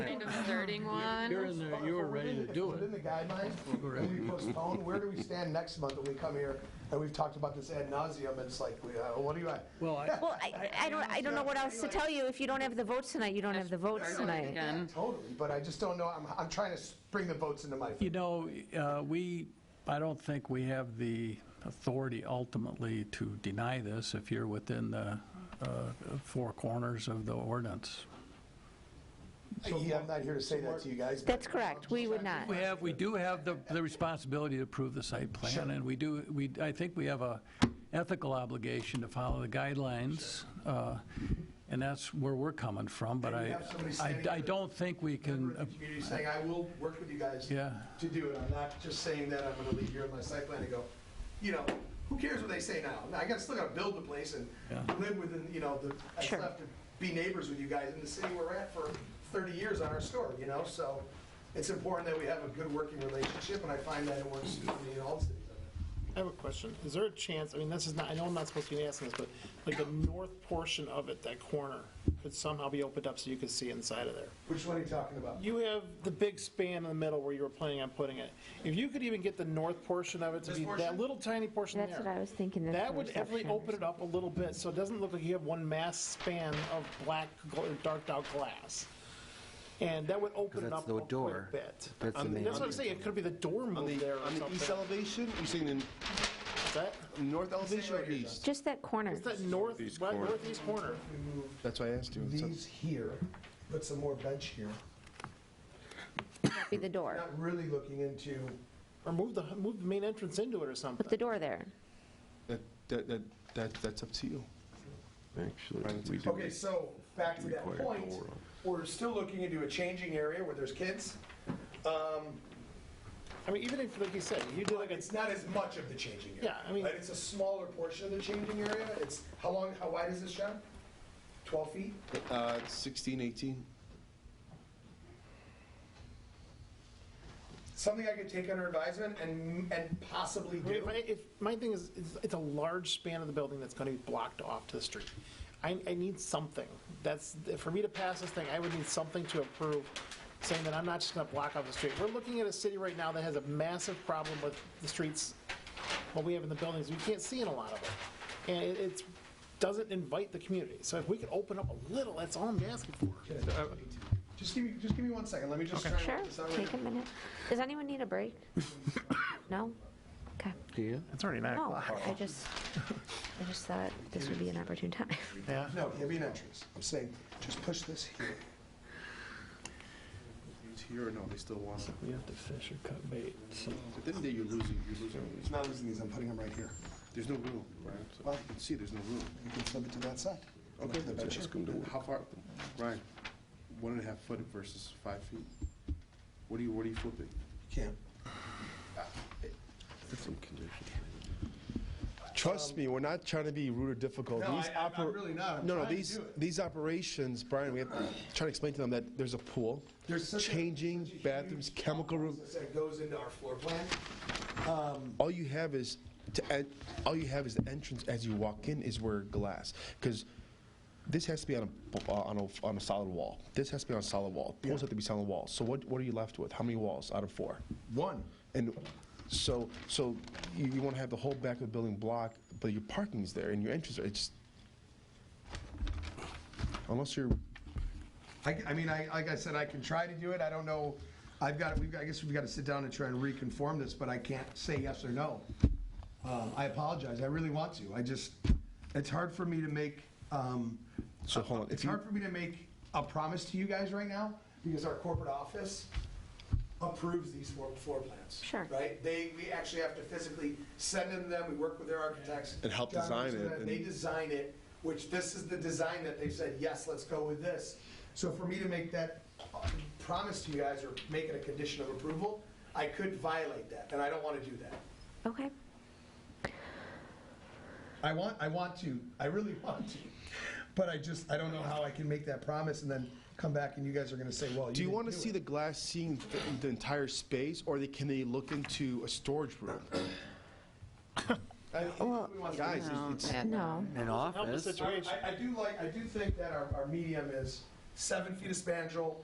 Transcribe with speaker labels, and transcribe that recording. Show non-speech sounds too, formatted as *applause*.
Speaker 1: starting one.
Speaker 2: You're in there, you were ready to do
Speaker 3: Within
Speaker 2: it.
Speaker 3: the guidelines, when we postpone, where do we stand next month when we come here? And we've talked about this ad nauseum, and it's like, we, uh, what do you, I-
Speaker 2: Well, I,
Speaker 4: Well, I, I don't, I don't know what else to tell you. If you don't have the votes tonight, you don't have the votes tonight.
Speaker 1: Again.
Speaker 3: totally, but I just don't know, I'm, I'm trying to bring the votes into my,
Speaker 2: you know, uh, we, I don't think we have the authority ultimately to deny this if you're within the uh, four corners of the ordinance.
Speaker 3: yeah, I'm not here to say that to you guys. but-
Speaker 4: That's correct. We would not.
Speaker 2: We have, we do have the, the responsibility to approve the site plan, and we do, we, I think we have a ethical obligation to follow the guidelines, uh, and that's where we're coming from, but
Speaker 3: And you
Speaker 2: I,
Speaker 3: have somebody
Speaker 2: I
Speaker 3: standing
Speaker 2: I don't think we
Speaker 3: member
Speaker 2: can, uh,
Speaker 3: of the community saying, I will work with you guys
Speaker 2: Yeah.
Speaker 3: to do it. I'm not just saying that I'm gonna leave here on my site plan and go, you know, who cares what they say now? I got, still gotta build the place and
Speaker 2: Yeah.
Speaker 3: live within, you know, the, I still
Speaker 4: Sure.
Speaker 3: have to be neighbors with you guys in the city we're at for thirty years on our store, you know, so it's important that we have a good working relationship, and I find that it works for me in all cities.
Speaker 5: I have a question. Is there a chance, I mean, this is not, I know I'm not supposed to be asking this, but like the north portion of it, that corner, could somehow be opened up so you could see inside of there?
Speaker 3: Which one are you talking about?
Speaker 5: You have the big span in the middle where you were planning on putting it. If you could even get the north portion of it to
Speaker 3: This
Speaker 5: be
Speaker 3: portion?
Speaker 5: that little tiny portion there.
Speaker 4: That's what I was thinking. the
Speaker 5: That would
Speaker 4: first
Speaker 5: definitely
Speaker 4: option or
Speaker 5: open it up a little bit, so it doesn't look like you have one mass span of black, gl- darked out glass. And that would open it
Speaker 6: that's
Speaker 5: up
Speaker 6: the
Speaker 5: a
Speaker 6: door.
Speaker 5: quick bit.
Speaker 6: That's the
Speaker 5: I mean,
Speaker 6: main
Speaker 5: That's what I'm
Speaker 6: entrance.
Speaker 5: saying, it could be the door
Speaker 6: On
Speaker 5: moved
Speaker 6: the,
Speaker 5: there or
Speaker 6: on the east
Speaker 5: something.
Speaker 6: elevation, you saying the
Speaker 5: Is that,
Speaker 6: north elevation or east?
Speaker 4: Just that corner.
Speaker 5: is that north, right, northeast corner?
Speaker 6: That's why I asked you. It's up-
Speaker 3: These here, put some more bench here.
Speaker 4: That'd Be the door.
Speaker 3: Not really looking into,
Speaker 5: Or move the, move the main entrance into it or
Speaker 4: Put the
Speaker 5: something.
Speaker 4: door there.
Speaker 6: That, that, that- that, that's up to you. Actually, we
Speaker 3: Okay, so back to that point, we're still looking into a changing area where there's kids. Um,
Speaker 5: I mean, even if, like you said, you did like a,
Speaker 3: It's not as much of the changing area.
Speaker 5: Yeah, I mean-
Speaker 3: Right, It's a smaller portion of the changing area. It's, how long, how wide is this, John? 12 feet?
Speaker 6: Uh, 16, 18.
Speaker 3: Something I could take under advisement and, and possibly
Speaker 5: I mean,
Speaker 3: do.
Speaker 5: my, if, my thing is, it's- it's a large span of the building that's gonna be blocked off to the street. I, I need something. That's, for me to pass this thing, I would need something to approve, saying that I'm not just gonna block off the street. We're looking at a city right now that has a massive problem with the streets, what we have in the buildings, we can't see in a lot of it. And it, it's, doesn't invite the community. So if we could open up a little, that's all I'm asking for.
Speaker 3: Just give me, just give me one second. Let me just try and
Speaker 4: Sure,
Speaker 3: work this out.
Speaker 4: take a
Speaker 3: right now.
Speaker 4: minute. Does anyone need a *laughs* break? No? Okay.
Speaker 6: Yeah.
Speaker 5: It's already nine
Speaker 4: No, I just, I just thought this would be an opportune time. *laughs*
Speaker 5: Yeah.
Speaker 3: No, give me an entrance. I'm saying, just push this here.
Speaker 6: It's here or no, they still want it.
Speaker 5: We have to fish or cut bait, so.
Speaker 6: But then you're losing, you're losing.
Speaker 3: It's not losing these. I'm putting them right here.
Speaker 6: There's no room, right? So you can see there's no room.
Speaker 3: You can flip it to that side.
Speaker 6: Okay,
Speaker 3: The bench here.
Speaker 6: how far, Ryan, one and a half foot versus five feet? What are you, what are you flipping?
Speaker 3: Can't.
Speaker 7: Trust me, we're not trying to be rude or difficult.
Speaker 3: Um, No,
Speaker 7: These
Speaker 3: I- I'm- I'm
Speaker 7: oper-
Speaker 3: really not. I'm
Speaker 7: No, no,
Speaker 3: trying to
Speaker 7: these,
Speaker 3: do it.
Speaker 7: these operations, Brian, we have, trying to explain to them that there's a pool,
Speaker 3: There's such a-
Speaker 7: changing
Speaker 3: such a
Speaker 7: bathrooms,
Speaker 3: huge
Speaker 7: chemical room.
Speaker 3: process That goes into our floor plan.
Speaker 7: All you have is, to en- all you have is the entrance as you walk in is where glass, because this has to be on a, uh, on a, on a solid wall. This has to be on a solid wall. Pools have to be solid walls. So what, what are you left with? How many walls out of four?
Speaker 3: One.
Speaker 7: And so, so you, you want to have the whole back of the building block, but your parking's there and your entrance, it's just, unless you're,
Speaker 3: I, I mean, I, like I said, I can try to do it. I don't know. I've got, we've, got- I guess we've got to sit down and try and reconform this, but I can't say yes or no. Um, I apologize. I really want to. I just, it's hard for me to make, um,
Speaker 7: so hold on.
Speaker 3: it's
Speaker 7: If you,
Speaker 3: hard for me to make a promise to you guys right now because our corporate office approves these floor, floor plans.
Speaker 4: Sure.
Speaker 3: Right? They, we actually have to physically send them to them. We work with their architects.
Speaker 7: And help
Speaker 3: John
Speaker 7: design
Speaker 3: works with
Speaker 7: it
Speaker 3: them.
Speaker 7: and-
Speaker 3: They design it, which this is the design that they said, yes, let's go with this. So for me to make that uh, promise to you guys or make it a condition of approval, I could violate that, and I don't want to do that.
Speaker 4: Okay.
Speaker 3: I want, I want to, I really *laughs* want to, but I just, I don't know how I can make that promise and then come back and you guys are gonna say, well, you
Speaker 7: do you
Speaker 3: didn't
Speaker 7: want to see
Speaker 3: it.
Speaker 7: the glass seeing th- the entire space or they, can they look into a storage room? Oh, Guys, it's- it's,
Speaker 4: No.
Speaker 6: An
Speaker 5: Help the
Speaker 6: office?
Speaker 5: situation.
Speaker 3: I, I do like, I do think that our, our medium is seven feet of spandrel,